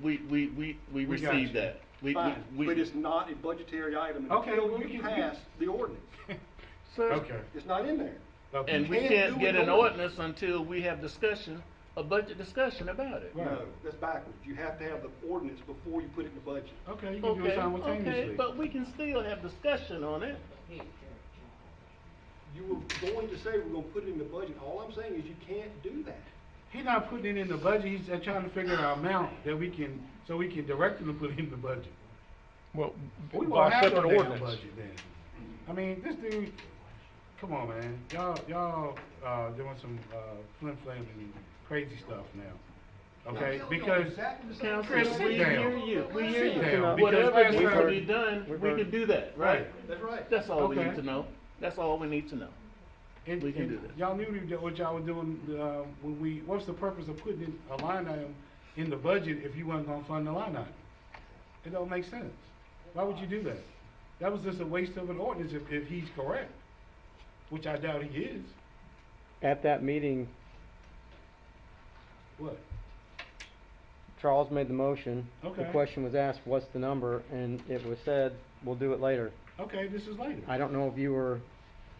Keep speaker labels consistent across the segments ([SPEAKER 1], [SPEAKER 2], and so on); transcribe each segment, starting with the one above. [SPEAKER 1] we, we, we, we
[SPEAKER 2] We got
[SPEAKER 1] received
[SPEAKER 2] you.
[SPEAKER 1] that. We, we-
[SPEAKER 3] Fine,
[SPEAKER 1] we.
[SPEAKER 3] but it's not a budgetary item
[SPEAKER 2] Okay,
[SPEAKER 3] until
[SPEAKER 2] well,
[SPEAKER 3] you
[SPEAKER 2] you can-
[SPEAKER 3] pass the ordinance.
[SPEAKER 1] Sir,
[SPEAKER 2] Okay.
[SPEAKER 3] It's not in there.
[SPEAKER 2] okay.
[SPEAKER 1] And we
[SPEAKER 3] can't
[SPEAKER 1] can't
[SPEAKER 3] do
[SPEAKER 1] get
[SPEAKER 3] an
[SPEAKER 1] an
[SPEAKER 3] ordinance.
[SPEAKER 1] ordinance until we have discussion, a budget discussion about it.
[SPEAKER 2] Right.
[SPEAKER 3] No, that's backwards. You have to have the ordinance before you put it in the budget.
[SPEAKER 2] Okay, you can do it
[SPEAKER 1] Okay, okay,
[SPEAKER 2] simultaneously.
[SPEAKER 1] but we can still have discussion on it.
[SPEAKER 3] You were going to say we're gonna put it in the budget. All I'm saying is you can't do that.
[SPEAKER 2] He's not putting it in the budget, he's just trying to figure out amount that we can, so we can direct him to put it in the budget.
[SPEAKER 4] Well,
[SPEAKER 2] We
[SPEAKER 4] by
[SPEAKER 2] won't have no
[SPEAKER 4] separate
[SPEAKER 2] damn
[SPEAKER 4] ordinance.
[SPEAKER 2] budget then. I mean, this dude, come on, man, y'all, y'all, uh, doing some, uh, flim flam and crazy stuff now, okay? Because,
[SPEAKER 1] Council,
[SPEAKER 2] Chris, sit
[SPEAKER 1] we
[SPEAKER 2] down.
[SPEAKER 1] hear you, we hear
[SPEAKER 2] Sit
[SPEAKER 1] you.
[SPEAKER 2] down,
[SPEAKER 1] Whatever
[SPEAKER 2] because
[SPEAKER 1] needs to
[SPEAKER 2] we're-
[SPEAKER 1] be done,
[SPEAKER 4] we're
[SPEAKER 1] we
[SPEAKER 4] very-
[SPEAKER 1] can do that, right?
[SPEAKER 3] That's right.
[SPEAKER 1] That's all we need
[SPEAKER 2] Okay.
[SPEAKER 1] to know. That's all we need to know.
[SPEAKER 2] and,
[SPEAKER 1] We can
[SPEAKER 2] and
[SPEAKER 1] do that.
[SPEAKER 2] y'all knew we did- what y'all were doing, uh, when we, what's the purpose of putting in a line item in the budget if you weren't gonna fund the line item? It don't make sense. Why would you do that? That was just a waste of an ordinance if, if he's correct, which I doubt he is.
[SPEAKER 4] At that meeting,
[SPEAKER 2] What?
[SPEAKER 4] Charles made the motion. The
[SPEAKER 2] Okay.
[SPEAKER 4] question was asked, what's the number? And it was said, we'll do it later.
[SPEAKER 2] Okay, this is later.
[SPEAKER 4] I don't know if you were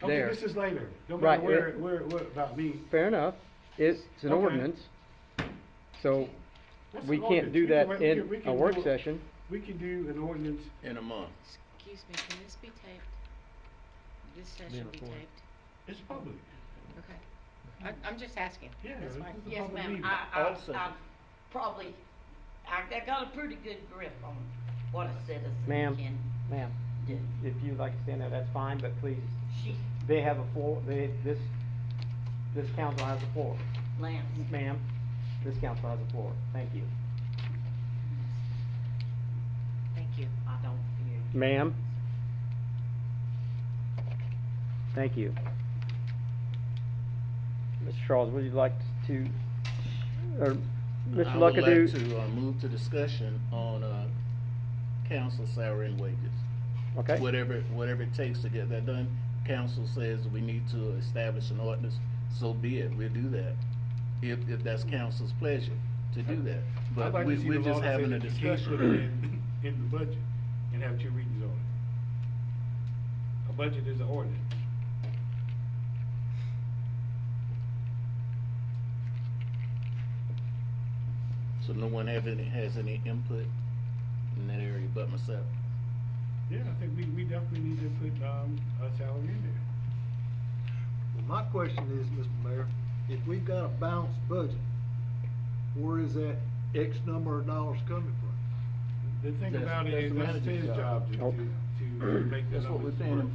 [SPEAKER 2] Okay,
[SPEAKER 4] there.
[SPEAKER 2] this is later. Don't
[SPEAKER 4] Right,
[SPEAKER 2] matter where,
[SPEAKER 4] it-
[SPEAKER 2] where, where, about me.
[SPEAKER 4] Fair enough. It's it's an
[SPEAKER 2] Okay.
[SPEAKER 4] ordinance. So
[SPEAKER 2] That's
[SPEAKER 4] we
[SPEAKER 2] an
[SPEAKER 4] can't
[SPEAKER 2] ordinance.
[SPEAKER 4] do
[SPEAKER 2] We can
[SPEAKER 4] that
[SPEAKER 2] write- we can- we
[SPEAKER 4] in a
[SPEAKER 2] can
[SPEAKER 4] work
[SPEAKER 2] do a-
[SPEAKER 4] session.
[SPEAKER 2] We can do an ordinance,
[SPEAKER 1] In a month.
[SPEAKER 5] Excuse me, can this be taped? This session be
[SPEAKER 4] recorded.
[SPEAKER 5] taped?
[SPEAKER 2] it's public.
[SPEAKER 5] Okay. I, I'm just asking.
[SPEAKER 2] Yeah,
[SPEAKER 5] That's
[SPEAKER 2] this
[SPEAKER 5] fine.
[SPEAKER 2] is a
[SPEAKER 6] Yes,
[SPEAKER 2] public
[SPEAKER 6] ma'am,
[SPEAKER 2] meeting.
[SPEAKER 6] I, I,
[SPEAKER 1] Also-
[SPEAKER 6] I probably, I, I got a pretty good grip on what a citizen
[SPEAKER 4] Ma'am.
[SPEAKER 6] can
[SPEAKER 4] Ma'am,
[SPEAKER 6] do.
[SPEAKER 4] if you'd like to stand there, that's fine, but please,
[SPEAKER 6] She,
[SPEAKER 4] they have a floor, they, this, this council has a floor.
[SPEAKER 6] Lance,
[SPEAKER 4] Ma'am, this council has a floor. Thank you.
[SPEAKER 5] Thank you.
[SPEAKER 6] I don't hear you.
[SPEAKER 4] Ma'am? Thank you. Mr. Charles, would you like to, or,
[SPEAKER 1] I
[SPEAKER 4] Mr.
[SPEAKER 1] would like
[SPEAKER 4] Luckadoo?
[SPEAKER 1] to, uh, move to discussion on, uh, council salary and wages.
[SPEAKER 4] Okay,
[SPEAKER 1] Whatever, whatever it takes to get that done. Council says we need to establish an ordinance, so be it, we'll do that. If, if that's council's pleasure to do that.
[SPEAKER 2] I'd
[SPEAKER 1] But
[SPEAKER 2] like to
[SPEAKER 1] we,
[SPEAKER 2] see
[SPEAKER 1] we're
[SPEAKER 2] the law
[SPEAKER 1] just
[SPEAKER 2] that says
[SPEAKER 1] having a
[SPEAKER 2] that you can't
[SPEAKER 1] discussion.
[SPEAKER 2] put it In in the budget and have two readings on it. A budget is an ordinance.
[SPEAKER 1] So no one have any, has any input in that area but myself.
[SPEAKER 2] Yeah, I think we, we definitely need to put, um, a salary in there.
[SPEAKER 7] Well, My question is, Mr. Mayor, if we've got a balanced budget, where is that X number of dollars coming from?
[SPEAKER 2] The thing
[SPEAKER 1] That's-
[SPEAKER 2] about it
[SPEAKER 1] that's
[SPEAKER 2] is,
[SPEAKER 1] the
[SPEAKER 2] that's
[SPEAKER 1] manager's
[SPEAKER 2] his
[SPEAKER 1] job.
[SPEAKER 2] job to,
[SPEAKER 4] Nope.
[SPEAKER 2] to, to make that
[SPEAKER 1] That's what we're
[SPEAKER 2] numbers
[SPEAKER 1] paying him
[SPEAKER 2] work.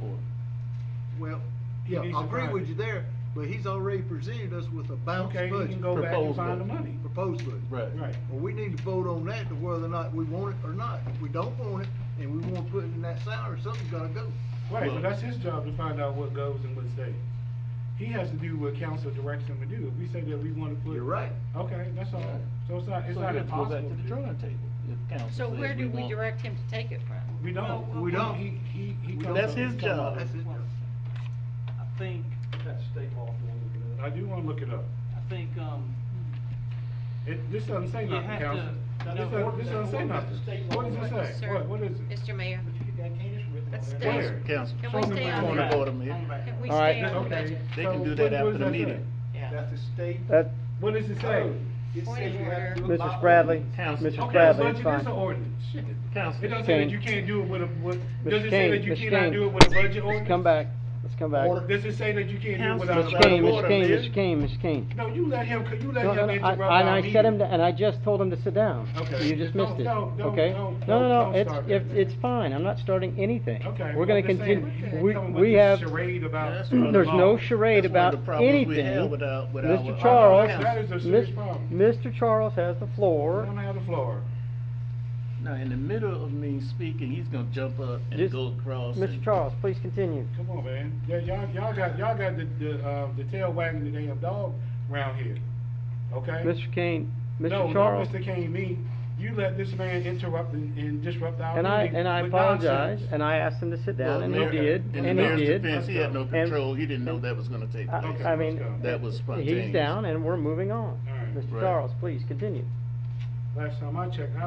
[SPEAKER 1] for.
[SPEAKER 7] Well,
[SPEAKER 2] He
[SPEAKER 7] yeah,
[SPEAKER 2] needs
[SPEAKER 7] I
[SPEAKER 2] to
[SPEAKER 7] agree
[SPEAKER 2] find
[SPEAKER 7] with
[SPEAKER 2] it.
[SPEAKER 7] you there, but he's already presented us with a balanced
[SPEAKER 2] Okay, he can
[SPEAKER 7] budget,
[SPEAKER 2] go back and
[SPEAKER 1] Proposed
[SPEAKER 2] find the
[SPEAKER 1] budget.
[SPEAKER 2] money.
[SPEAKER 7] proposed budget.
[SPEAKER 1] Right.
[SPEAKER 2] Right.
[SPEAKER 7] Well, we need to vote on that to whether or not we want it or not. If we don't want it, and we wanna put it in that salary, something's gotta go.
[SPEAKER 2] Right,
[SPEAKER 1] Well-
[SPEAKER 2] but that's his job to find out what goes and what stays. He has to do what council directs him to do. If we say that we wanna put.
[SPEAKER 7] You're right.
[SPEAKER 2] Okay, that's all.
[SPEAKER 1] Right.
[SPEAKER 2] So it's not, it's
[SPEAKER 1] So
[SPEAKER 2] not
[SPEAKER 1] you have to go back
[SPEAKER 2] impossible.
[SPEAKER 1] to the drawing table if council
[SPEAKER 5] So
[SPEAKER 1] says
[SPEAKER 5] where do we
[SPEAKER 1] want-
[SPEAKER 5] direct him to take it from?
[SPEAKER 2] We don't.
[SPEAKER 7] We don't.
[SPEAKER 2] He, he, he
[SPEAKER 7] We
[SPEAKER 2] comes
[SPEAKER 1] That's
[SPEAKER 2] up-
[SPEAKER 1] his
[SPEAKER 2] comes
[SPEAKER 1] job.
[SPEAKER 2] up-
[SPEAKER 7] That's it.
[SPEAKER 8] I think, that's state law, if you
[SPEAKER 2] I
[SPEAKER 8] want to look it
[SPEAKER 2] do wanna look it
[SPEAKER 8] up.
[SPEAKER 2] up.
[SPEAKER 8] I think, um,
[SPEAKER 2] It, this doesn't say
[SPEAKER 8] You
[SPEAKER 2] nothing,
[SPEAKER 8] have
[SPEAKER 2] council.
[SPEAKER 8] to-
[SPEAKER 2] This
[SPEAKER 8] no,
[SPEAKER 2] doesn't, this
[SPEAKER 8] ordinance-
[SPEAKER 2] doesn't say
[SPEAKER 8] ordinance
[SPEAKER 2] nothing.
[SPEAKER 8] is state law.
[SPEAKER 2] What does it say?
[SPEAKER 5] Sir,
[SPEAKER 2] What, what is it?
[SPEAKER 5] Mr. Mayor,
[SPEAKER 8] but you got Candace written
[SPEAKER 5] Let's
[SPEAKER 8] on
[SPEAKER 5] stay-
[SPEAKER 8] there.
[SPEAKER 2] Where?
[SPEAKER 1] Council.
[SPEAKER 5] can
[SPEAKER 2] Show
[SPEAKER 5] we
[SPEAKER 2] me
[SPEAKER 5] stay
[SPEAKER 2] where-
[SPEAKER 5] on
[SPEAKER 1] Point of
[SPEAKER 5] that?
[SPEAKER 1] order, man.
[SPEAKER 5] Can we
[SPEAKER 4] All right,
[SPEAKER 5] stay on the
[SPEAKER 2] Okay,
[SPEAKER 5] budget?
[SPEAKER 1] They can
[SPEAKER 2] so
[SPEAKER 1] do that
[SPEAKER 2] what- what
[SPEAKER 1] after
[SPEAKER 2] does
[SPEAKER 1] the
[SPEAKER 2] say?
[SPEAKER 1] meeting.
[SPEAKER 8] Yeah.
[SPEAKER 7] That's the state.
[SPEAKER 4] that,
[SPEAKER 2] What does it say?
[SPEAKER 7] It
[SPEAKER 5] Point
[SPEAKER 7] says
[SPEAKER 5] of
[SPEAKER 7] you have to
[SPEAKER 5] order.
[SPEAKER 7] do it by
[SPEAKER 4] Mr. Bradley,
[SPEAKER 7] ordinance.
[SPEAKER 1] Council.
[SPEAKER 4] Mr.
[SPEAKER 2] Oh, Okay,
[SPEAKER 4] Bradley,
[SPEAKER 2] budget
[SPEAKER 4] it's
[SPEAKER 2] is
[SPEAKER 4] fine.
[SPEAKER 2] an ordinance. Shit.
[SPEAKER 1] Council.
[SPEAKER 2] It doesn't say that
[SPEAKER 4] Kane.
[SPEAKER 2] you can't do it with a, with, does
[SPEAKER 4] Mr.
[SPEAKER 2] it say that
[SPEAKER 4] Kane,
[SPEAKER 2] you
[SPEAKER 4] Mr.
[SPEAKER 2] cannot
[SPEAKER 4] Kane.
[SPEAKER 2] do it with a budget
[SPEAKER 4] Let's
[SPEAKER 2] ordinance?
[SPEAKER 4] come back, let's come back.
[SPEAKER 2] Or Does it say that you can't do it
[SPEAKER 1] Council.
[SPEAKER 2] without? a
[SPEAKER 4] Mr.
[SPEAKER 1] Out of
[SPEAKER 2] budget
[SPEAKER 4] Kane, Mr.
[SPEAKER 1] order,
[SPEAKER 4] Kane,
[SPEAKER 1] man.
[SPEAKER 4] Mr. Kane, Mr. Kane.
[SPEAKER 2] No, you let him, you let
[SPEAKER 4] No, no,
[SPEAKER 2] him
[SPEAKER 4] no,
[SPEAKER 2] interrupt
[SPEAKER 4] I-
[SPEAKER 2] our
[SPEAKER 4] And I set him,
[SPEAKER 2] meeting.
[SPEAKER 4] to- and I just told him to sit down.
[SPEAKER 2] Okay.
[SPEAKER 4] You just missed
[SPEAKER 2] Don't-
[SPEAKER 4] it,
[SPEAKER 2] don't- don't-
[SPEAKER 4] okay?
[SPEAKER 2] don't-
[SPEAKER 4] No, no,
[SPEAKER 2] don't
[SPEAKER 4] no, it's,
[SPEAKER 2] start that.
[SPEAKER 4] if, it's fine, I'm not starting anything.
[SPEAKER 2] Okay.
[SPEAKER 4] We're
[SPEAKER 2] well,
[SPEAKER 4] gonna
[SPEAKER 2] I'm just saying, what
[SPEAKER 4] continue,
[SPEAKER 2] the heck
[SPEAKER 4] we,
[SPEAKER 2] talking about
[SPEAKER 4] we
[SPEAKER 2] this
[SPEAKER 4] have,
[SPEAKER 2] Charade
[SPEAKER 1] Yeah,
[SPEAKER 2] about.
[SPEAKER 1] that's what I'm
[SPEAKER 4] There's no
[SPEAKER 2] law.
[SPEAKER 4] charade
[SPEAKER 1] That's one of
[SPEAKER 4] about
[SPEAKER 1] the problems we have
[SPEAKER 4] anything.
[SPEAKER 1] with our- with our-
[SPEAKER 4] Mr.
[SPEAKER 2] That is a
[SPEAKER 4] Charles,
[SPEAKER 2] serious
[SPEAKER 4] Mis-
[SPEAKER 2] problem.
[SPEAKER 4] Mr. Charles has the
[SPEAKER 2] We're
[SPEAKER 4] floor.
[SPEAKER 2] gonna have the floor.
[SPEAKER 1] Now, in the middle of me speaking, he's gonna jump up and
[SPEAKER 4] Just-
[SPEAKER 1] go across.
[SPEAKER 4] Mr.
[SPEAKER 1] and-
[SPEAKER 4] Charles, please continue.
[SPEAKER 2] Come on, man. Yeah, y'all, y'all got, y'all got the, the, uh, the tail wagging the damn dog round here, okay?
[SPEAKER 4] Mr. Kane,
[SPEAKER 2] No,
[SPEAKER 4] Mr.
[SPEAKER 2] not
[SPEAKER 4] Charles,
[SPEAKER 2] Mr. Kane, me. You let this man interrupt and, and disrupt our
[SPEAKER 4] and I,
[SPEAKER 2] meeting
[SPEAKER 4] and I
[SPEAKER 2] with
[SPEAKER 4] apologize,
[SPEAKER 2] nonsense.
[SPEAKER 4] and I asked him to sit
[SPEAKER 1] Well,
[SPEAKER 4] down, and he
[SPEAKER 1] Mayor-
[SPEAKER 4] did,
[SPEAKER 1] In the
[SPEAKER 4] and he
[SPEAKER 1] mayor's
[SPEAKER 4] did.
[SPEAKER 1] defense, he had no
[SPEAKER 4] And-
[SPEAKER 1] control, he didn't know that was gonna take
[SPEAKER 4] I-
[SPEAKER 1] place.
[SPEAKER 4] I mean,
[SPEAKER 2] let's go.
[SPEAKER 1] That was
[SPEAKER 4] he's
[SPEAKER 1] spontaneous.
[SPEAKER 4] down, and we're moving on.
[SPEAKER 2] All right.
[SPEAKER 4] Mr.
[SPEAKER 1] Right.
[SPEAKER 4] Charles, please continue.
[SPEAKER 2] Last time I checked, I